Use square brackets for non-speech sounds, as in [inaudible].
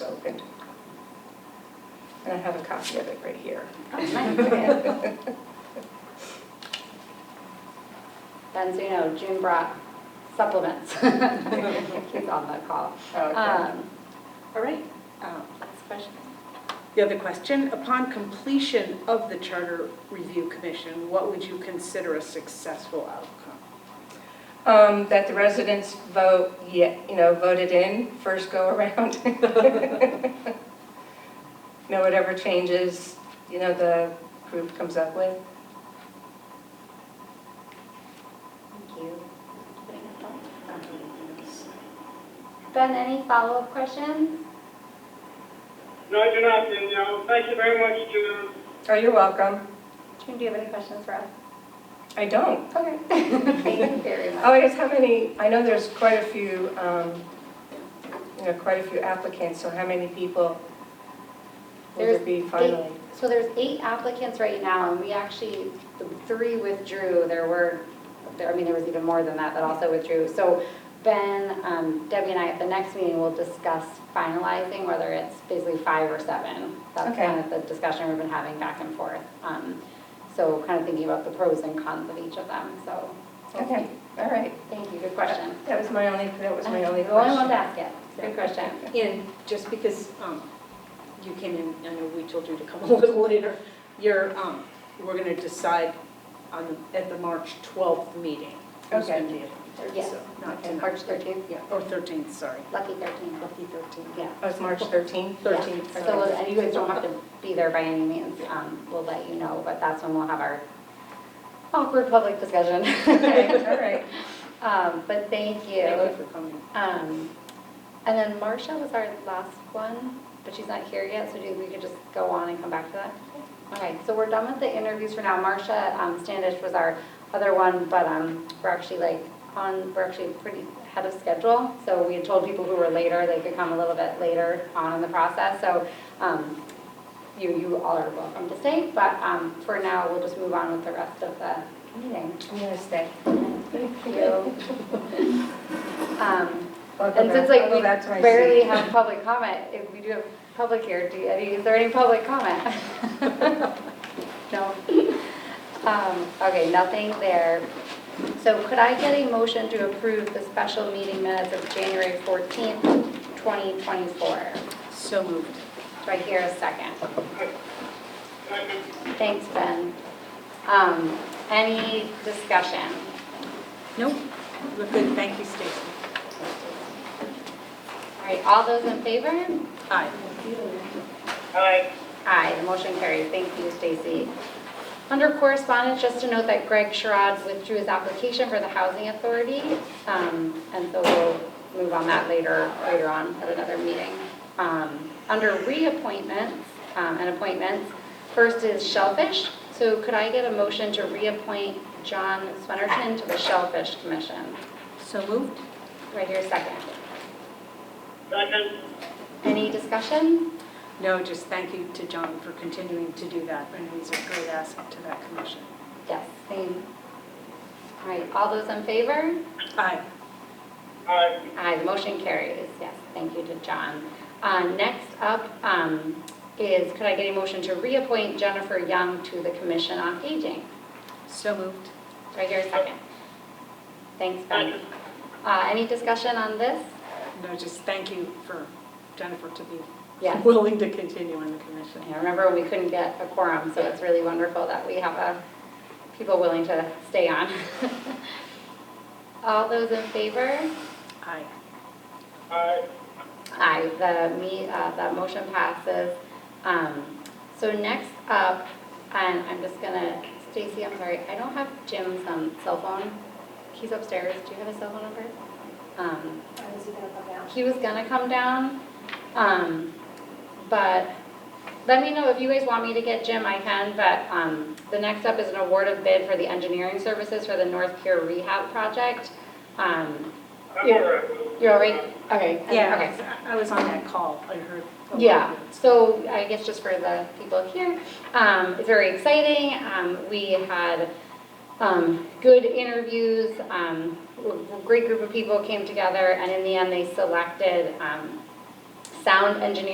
have a copy of it right here. Then so you know, June brought supplements. [laughs] He's on the call. Okay. Um, All right. oh, Last question. Uh, The other question, upon completion of the Charter Review Commission, what would you consider a successful outcome? Um, that the residents vote, ye- you know, voted in first go around. [laughs] You know, whatever changes, you know, the group comes up with. Thank you. Ben, any follow-up questions? No, I do not, and, uh, thank you very much to Oh, you're welcome. June, do you have any questions for us? I don't. Okay. [laughs] Thank you very Oh, much. I guess how many, I know there's quite a few, um, you know, quite a few applicants, so how many people will there There's be finally? So there's eight applicants right now, and we actually, the three withdrew. There were, there, I mean, there was even more than that that also withdrew. So Ben, um, Debbie and I, at the next meeting, will discuss finalizing whether it's basically five or seven. That's Okay. kind of the discussion we've been having back and forth. Um, So kind of thinking about the pros and cons of each of them, so. Okay, all right. Thank you, good question. That was my only, that was my [laughs] only The only one to question. ask it, good question. [laughs] And just because um, you came in, I know we told you to come [laughs] a little later, you're, um, we're going to decide on, the- at the March 12th meeting. who's Okay. gonna be appointed, Yes. so Not Okay, tonight. March 13th? Yeah, or 13th, sorry. Lucky 13th, Lucky 13th. yeah. Oh, it's March 13th? Yeah, 13th. So, and you guys don't have to be there by any means, um, we'll let you know, but that's when we'll have our awkward public discussion. [laughs] Okay, all right. Um, but thank Thank you. you for coming. Um, and then Marcia was our last one, but she's not here yet, so do- we could just go on and come back to that. Okay, so we're done with the interviews for now. Marcia um, Standish was our other one, but, um, we're actually like on, we're actually pretty ahead of schedule. So we had told people who were later, they could come a little bit later on in the process, so, um, you, you all are welcome to stay, but, um, for now, we'll just move on with the rest of the meeting. I'm gonna stay. Thank you. [laughs] Um, I'll go and back- since like I'll go we back to my rarely seat. have public comment, if we do have public here, do you, any- is there any public comment? No? Um, okay, nothing there. So could I get a motion to approve the special meeting minutes of January fourteenth, twenty twenty-four? So moved. Do I hear a second? second. Thanks, Ben. Um, any discussion? Nope, we're good, thank you, Stacy. All right, all those in favor? Aye. Aye. Aye, the motion carries. Thank you, Stacy. Under correspondence, just to note that Greg Sherrod withdrew his application for the Housing Authority, um, and so we'll move on that later, later on at another meeting. Um, Under reappointments um, and appointments, first is Shellfish. So could I get a motion to reappoint John Swenerton to the Shellfish Commission? So moved? Do I hear a second? Second. Any discussion? No, just thank you to John for continuing to do that, and he's a great asset to that commission. Yes, same. All right, all those in favor? Aye. Aye. Aye, the motion carries, yes, thank you to John. Uh, Next up um, is, could I get a motion to reappoint Jennifer Young to the Commission on Aging? So moved. Do I hear a second? Thanks, Ben. Second. Uh, Any discussion on this? No, just thank you for Jennifer to be Yes. willing to continue on the commission. I remember when we couldn't get a quorum, so it's really wonderful that we have uh, people willing to stay on. [laughs] All those in favor? Aye. Aye. Aye, the, me, uh, that motion passes. Um, so next up, and I'm just gonna, Stacy, I'm sorry, I don't have Jim's, um, cell phone. He's upstairs, do you have his cell phone number? Um, he was gonna come down, um, but let me know if you guys want me to get Jim, I can, but, um, the next up is an award of bid for the engineering services for the North Pier Rehab Project. Um, I'm Yeah. all right. you're all right? Okay. Okay. Yeah, I I was on that call, I heard. a lot Yeah, of it. so I guess just for the people here, um, it's very exciting. Um, we had, um, good interviews, um, a great group of people came together, and in the end, they selected, um, sound engineer